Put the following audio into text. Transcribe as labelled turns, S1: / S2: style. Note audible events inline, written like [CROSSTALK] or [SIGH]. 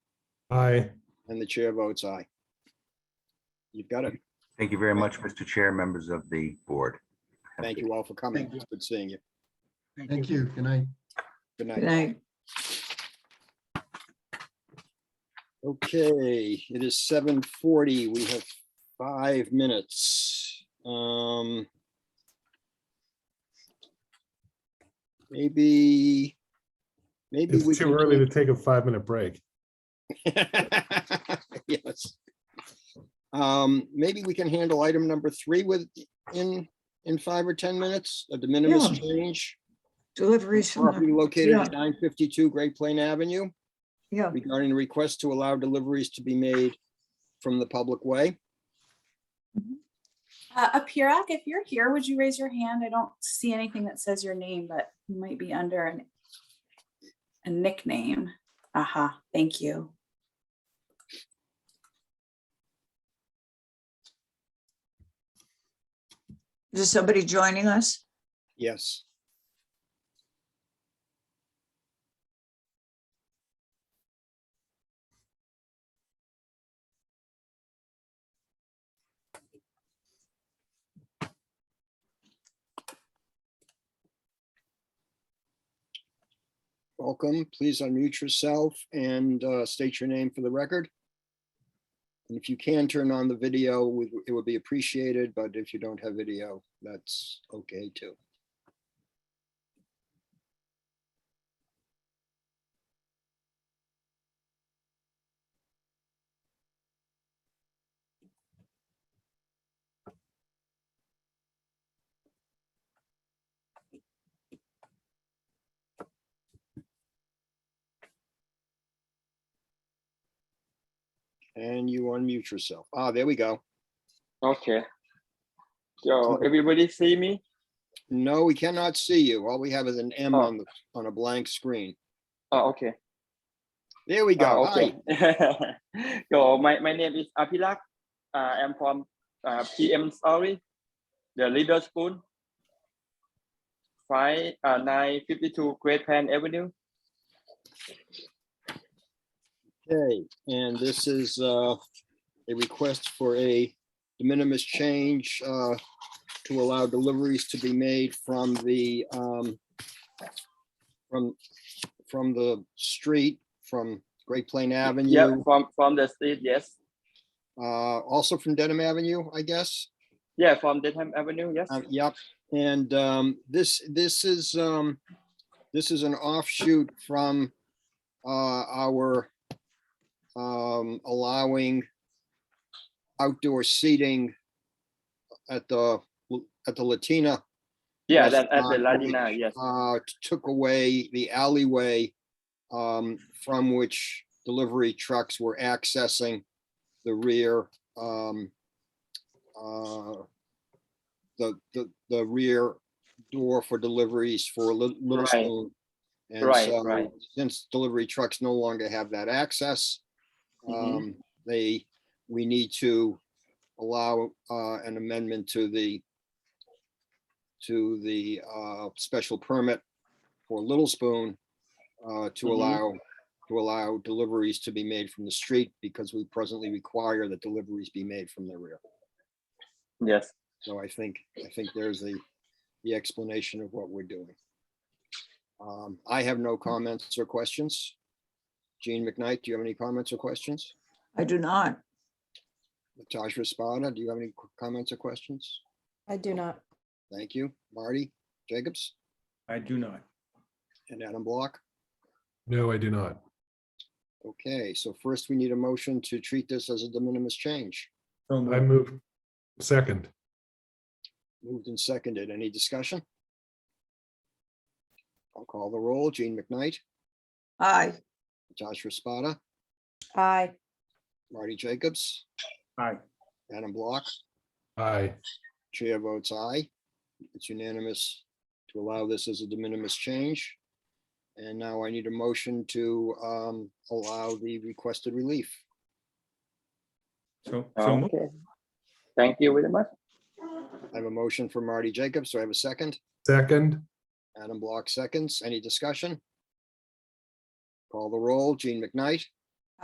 S1: Aye.
S2: and the chair votes aye. You've got it.
S3: Thank you very much, Mr. Chair, members of the board. Have a
S2: Thank
S3: good
S2: you all for coming.
S4: Thank you.
S2: It's Good seeing you.
S4: Thank you. Good night.
S2: Good
S5: Good
S2: night.
S5: night.
S2: Okay, it is seven forty. We have five minutes. Um. Maybe. Maybe we.
S1: It's too
S2: can
S1: early to
S2: do-
S1: take a five-minute break.
S2: [LAUGHS] Yes. Um, maybe we can handle item number three with, in, in five or ten minutes, a de minimis
S5: Yeah.
S2: change.
S5: Deliveries from,
S2: Property
S5: the-
S2: located at
S5: yeah.
S2: nine fifty-two Great Plain Avenue.
S5: yeah,
S2: regarding the request to allow deliveries to be made from the public way.
S6: Uh, Apirak, if you're here, would you raise your hand? I don't see anything that says your name, but you might be under an, a nickname. Aha, thank you.
S5: is somebody joining us?
S2: Yes. Welcome. Please unmute yourself and uh, state your name for the record. And if you can turn on the video, we- it would be appreciated, but if you don't have video, that's okay too. And you unmute yourself. Ah, there we go.
S7: Okay. So everybody see me?
S2: No, we cannot see you. All we have is an M on the, on a blank screen.
S7: Oh, okay.
S2: There we go.
S7: Oh,
S2: Hi.
S7: okay. [LAUGHS] so my, my name is Apilak. Uh, I'm from uh, PM Sorry, the Leader Spoon, five uh, nine fifty two Great Pan Avenue.
S2: Okay, and this is uh, a request for a de minimis change uh, to allow deliveries to be made from the um, from, from the street, from Great Plain
S7: Yeah,
S2: Avenue,
S7: from from the street. Yes.
S2: uh, also from Dedham Avenue, I guess.
S7: Yeah, from Denham Avenue. Yes.
S2: Uh, Yep, and um, this, this is, um, this is an offshoot from uh, our um, allowing outdoor seating at the, at the Latina,
S7: yeah,
S2: yes,
S7: that at the
S2: uh,
S7: Latina. Yes.
S2: uh, took away the alleyway um, from which delivery trucks were accessing the rear um, uh, the, the, the rear door for deliveries for Lit- Little
S7: Right.
S2: Spoon. And
S7: Right,
S2: so,
S7: right.
S2: Since delivery trucks no longer have that access,
S7: Mhm.
S2: um, they, we need to allow uh, an amendment to the to the uh, special permit for Little Spoon uh, to
S7: Mhm.
S2: allow to allow deliveries to be made from the street because we presently require that deliveries be made from the rear.
S7: Yes.
S2: So I think, I think there's the, the explanation of what we're doing. Um, I have no comments or questions. Gene McKnight, do you have any comments or questions?
S5: I do not.
S2: Natasha Spada, do you have any qu- comments or questions?
S8: I do not.
S2: Thank you. Marty Jacobs
S9: I do not.
S2: and Adam Block.
S1: No, I do not.
S2: Okay, so first we need a motion to treat this as a de minimis change.
S9: So
S1: I
S9: moved.
S1: move second.
S2: Moved and seconded. Any discussion? I'll call the roll. Gene McKnight,
S5: Aye.
S2: Natasha Spada,
S8: Aye.
S2: Marty Jacobs,
S9: Aye.
S2: Adam Block.
S1: Aye.
S2: Chair votes aye. It's unanimous to allow this as a de minimis change. And now I need a motion to um, allow the requested relief.
S9: So, so moved.
S7: Okay. Thank you very much.
S2: I have a motion for Marty Jacobs. So I have a second.
S1: Second.
S2: Adam Block seconds. Any discussion? Call the roll. Gene McKnight,